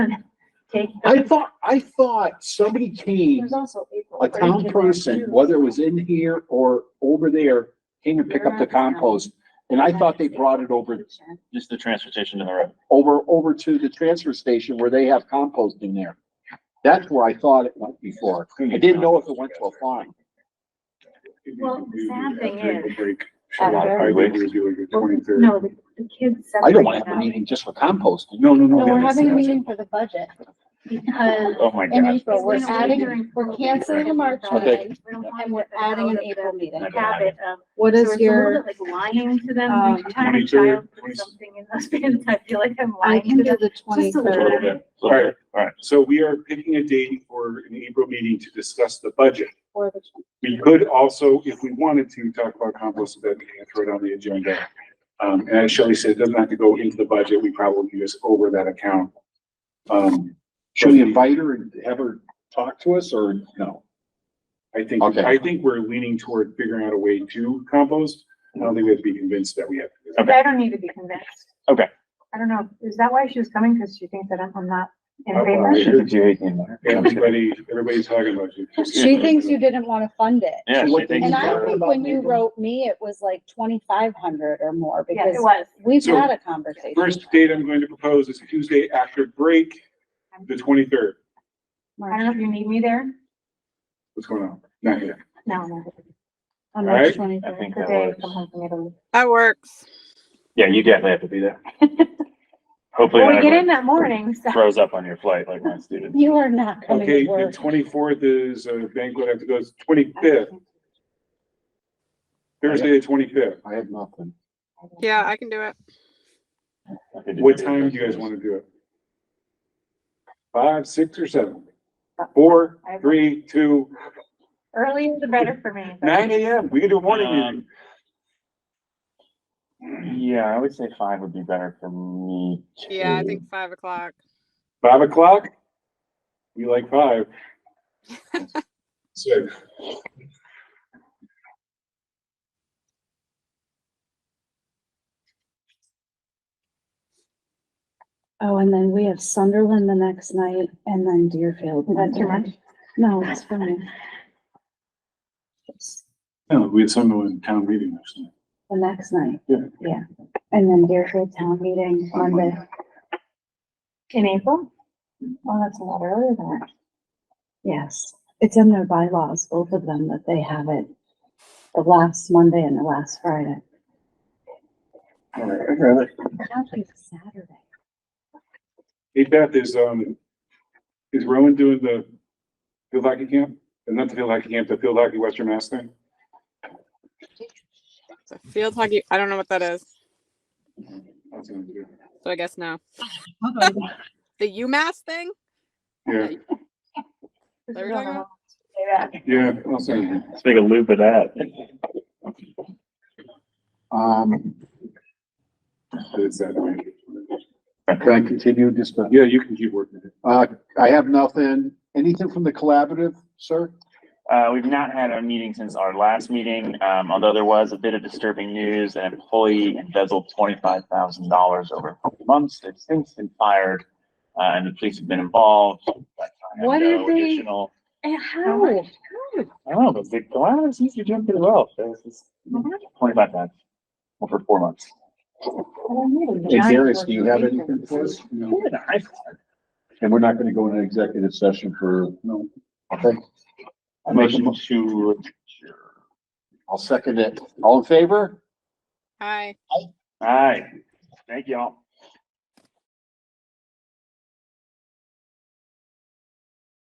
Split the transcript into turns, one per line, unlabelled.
take.
I thought, I thought somebody came,
There's also April.
a town person, whether it was in here or over there, came to pick up the compost. And I thought they brought it over,
Just the transportation to the road.
over, over to the transfer station where they have compost in there. That's where I thought it went before. I didn't know if it went to a farm.
Well, the sad thing is-
No.
No, the, the kids.
I don't wanna
separate
have a
them
meeting just for compost. No, no,
No,
no.
we're having a meeting for the budget because
Oh my
in
God.
April, we're
It's gonna be
adding,
during-
we're canceling the March
Okay.
meeting
We don't want
and we're
them
adding
out
an
of
April
the
meeting.
Habit of.
What
so
is
it's a
your,
little bit Like lying to them,
um,
every time a
22,
child
twenty-
puts something in those bins, I feel like I'm
I
lying
can
to
do
them.
the
Just a little
twenty-third.
bit.
All right, So we are picking a date for an April meeting to discuss the budget.
or the
We could also, if we wanted to, talk about compost at that meeting and throw it on the agenda. Um, and as Shelley said, it doesn't have to go into the budget. We probably can just over that account. Um,
Should we invite her and have her talk to us or no?
I think,
Okay.
I think we're leaning toward figuring out a way to compost. I don't think we have to be convinced that we have. to do that.
But I don't need to be convinced.
Okay.
I don't know, is that why she was coming? Cause she thinks that I'm, I'm not in
Oh,
favor?
well,
She thinks you hate me, Mark.
Everybody, everybody's talking about you.
She thinks you didn't want to fund it.
Yeah, she
What
thinks
And
you
I
heard
think
about
when you
Maple?
wrote me, it was like twenty-five hundred or more
Yeah, it
because
was.
we've
So,
had a conversation.
First date I'm going to propose is Tuesday after break, the twenty-third.
I don't know if you need me there.
What's going on? Not yet.
No, no.
On
All right.
March
I
twenty-third.
think
The
that
day from
works.
home from Italy.
That works.
Yeah, you definitely have to be there. Hopefully,
Well, we get in
it
that morning, so.
throws up on your flight like my student.
You are not coming
Okay,
to
the
work.
twenty-fourth is a banquet, I have to go, it's twenty-fifth,
Oh.
Thursday the twenty-fifth.
I have nothing.
Yeah, I can do it.
What time do you guys want to do it? Five, six, or seven?
Uh,
Four, three, two,
Earlier the better for me. but-
nine AM, we can do a morning meeting.
Um, Yeah, I would say five would be better for me.
Yeah, I
too.
think five o'clock.
Five o'clock? We like five. Six.
Oh, and then we have Sunderland the next night and then Deerfield.
Is that too much?
No, it's fine. It's
No, we had someone in town meeting next night.
The next night.
Yeah.
Yeah. And then Deerfield Town Meeting
On
Monday.
In April? Oh, that's a lot earlier than that.
Yes, it's in their bylaws, both of them, that they have it the last Monday and the last Friday.
All right, I'd rather-
Now it's Saturday.
Hey Beth, is, um, is Rowan doing the field hockey camp? Not the field hockey camp, the field hockey Western Mass thing?
So field hockey. I don't know what that is,
That's what I'm doing.
so I guess no. The UMass thing?
Yeah,
There we go.
Yeah.
yeah, I'll send
Let's make a loop of that.
Um,
you. It's that way.
can I continue just a
Yeah, you can keep working it.
Uh, I have nothing. Anything from the collaborative, sir?
Uh, we've not had a meeting since our last meeting, um, although there was a bit of disturbing news. An employee embezzled twenty-five thousand dollars over a couple months. They've since been fired, uh, and the police have been involved.
What did
No
they-
additional-
How much?
I don't know, but the Galatasaray seems to be doing pretty well. Twenty-five times, well, for four months.
Hey, Darius, do you have anything for us?
What an iPhone.
And we're not gonna go into executive session for, no. Okay,
I'm making two.
I'll second it. All in favor?
Hi.
All right, thank y'all.